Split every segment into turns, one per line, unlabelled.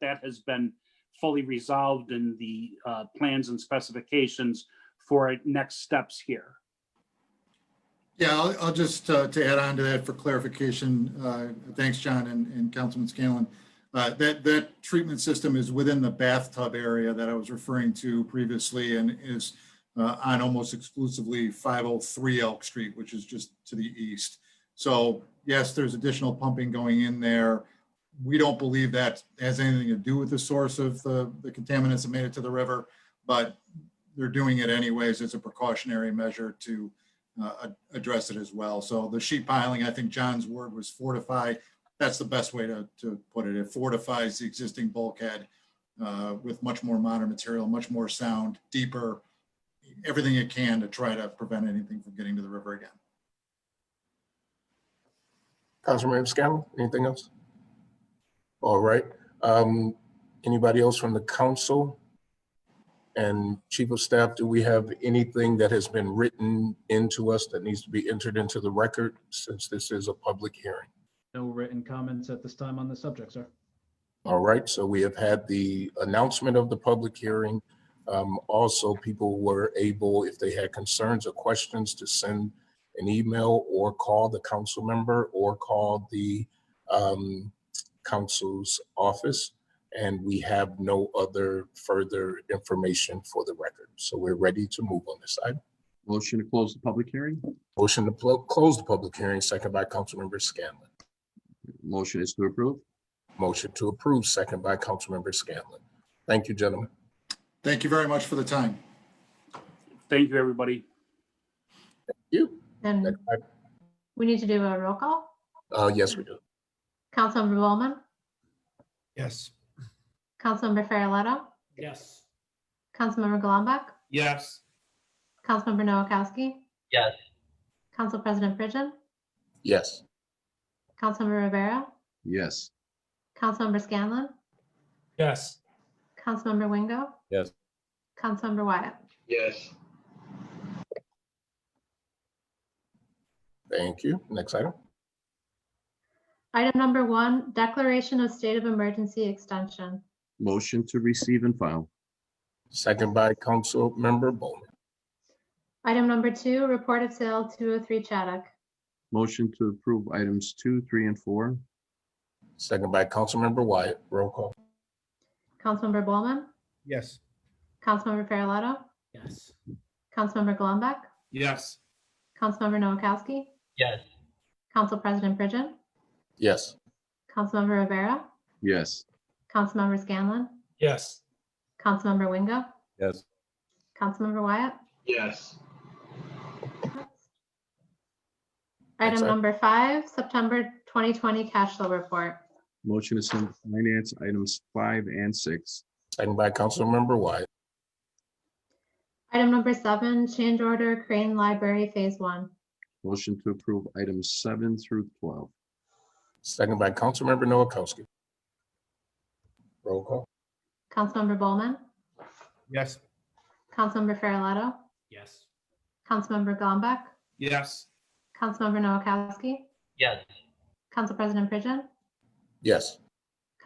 that has been fully resolved in the uh, plans and specifications for next steps here.
Yeah, I'll, I'll just, uh, to add on to that for clarification, uh, thanks, John and, and Councilman Scanlon. Uh, that, that treatment system is within the bathtub area that I was referring to previously and is, uh, on almost exclusively five oh three Elk Street, which is just to the east. So yes, there's additional pumping going in there. We don't believe that has anything to do with the source of the, the contaminants that made it to the river, but they're doing it anyways as a precautionary measure to, uh, ad- address it as well. So the sheet piling, I think John's word was fortify. That's the best way to, to put it. It fortifies the existing bulkhead uh, with much more modern material, much more sound, deeper, everything it can to try to prevent anything from getting to the river again.
Councilmember Scanlon, anything else? All right. Um, Anybody else from the council? And Chief of Staff, do we have anything that has been written into us that needs to be entered into the record since this is a public hearing?
No written comments at this time on the subject, sir.
All right, so we have had the announcement of the public hearing. Um, Also, people were able, if they had concerns or questions, to send an email or call the council member or call the um, council's office. And we have no other further information for the record. So we're ready to move on this item.
Motion to close the public hearing.
Motion to pl- close the public hearing, second by Councilmember Scanlon.
Motion is to approve.
Motion to approve, second by Councilmember Scanlon. Thank you, gentlemen.
Thank you very much for the time.
Thank you, everybody.
You.
Then we need to do a roll call.
Uh, yes, we do.
Councilmember Bowman,
Yes.
Councilmember Farrelletto,
Yes.
Councilmember Golumback,
Yes.
Councilmember Noakowski.
Yes.
Council President Pridgen,
Yes.
Councilmember Rivera,
Yes.
Councilmember Scanlon,
Yes.
Councilmember Wingo.
Yes.
Councilmember Wyatt.
Yes.
Thank you. Next item.
Item number one, declaration of state of emergency extension.
Motion to receive and file.
Second by Council Member Bowman.
Item number two, report of sale 203 Chaddock.
Motion to approve items two, three, and four.
Second by Council Member Wyatt. Roll call.
Councilmember Bowman,
Yes.
Councilmember Farrelletto,
Yes.
Councilmember Golumback,
Yes.
Councilmember Noakowski,
Yes.
Council President Pridgen,
Yes.
Councilmember Rivera,
Yes.
Councilmember Scanlon,
Yes.
Councilmember Wingo,
Yes.
Councilmember Wyatt.
Yes.
Thanks,
Item
Ed.
number five, September 2020 cash flow report.
Motion to send to finance items five and six.
Second by Council Member Wyatt.
Item number seven, change order Crane Library Phase One.
Motion to approve items seven through twelve.
Second by Council Member Noakowski. Roll call.
Councilmember Bowman,
Yes.
Councilmember Farrelletto,
Yes.
Councilmember Gollback,
Yes.
Councilmember Noakowski,
Yes.
Council President Pridgen,
Yes.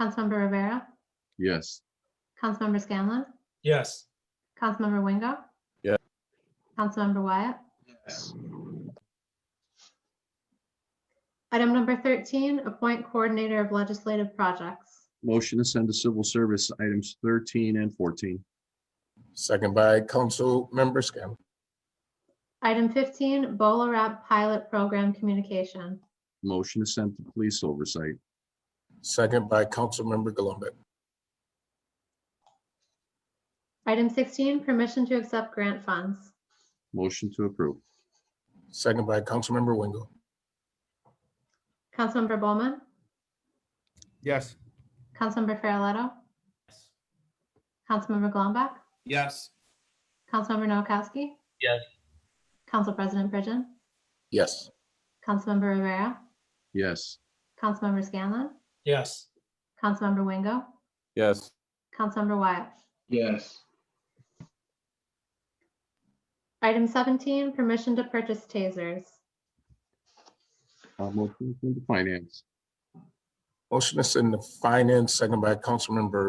Councilmember Rivera,
Yes.
Councilmember Scanlon,
Yes.
Councilmember Wingo.
Yeah.
Councilmember Wyatt. Item number 13, appoint coordinator of legislative projects.
Motion to send to civil service items thirteen and fourteen.
Second by Council Member Scanlon.
Item 15, BolaWrap pilot program communication.
Motion to send to police oversight.
Second by Council Member Gullumbeck.
Item 16, permission to accept grant funds.
Motion to approve.
Second by Council Member Wingo.
Councilmember Bowman,
Yes.
Councilmember Farrelletto, Councilmember Golumback,
Yes.
Councilmember Noakowski.
Yes.
Council President Pridgen,
Yes.
Councilmember Rivera,
Yes.
Councilmember Scanlon,
Yes.
Councilmember Wingo,
Yes.
Councilmember Wyatt.
Yes.
Item 17, permission to purchase tasers.
Uh, motion to send to finance.
Motion to send to Finance, second by Council Member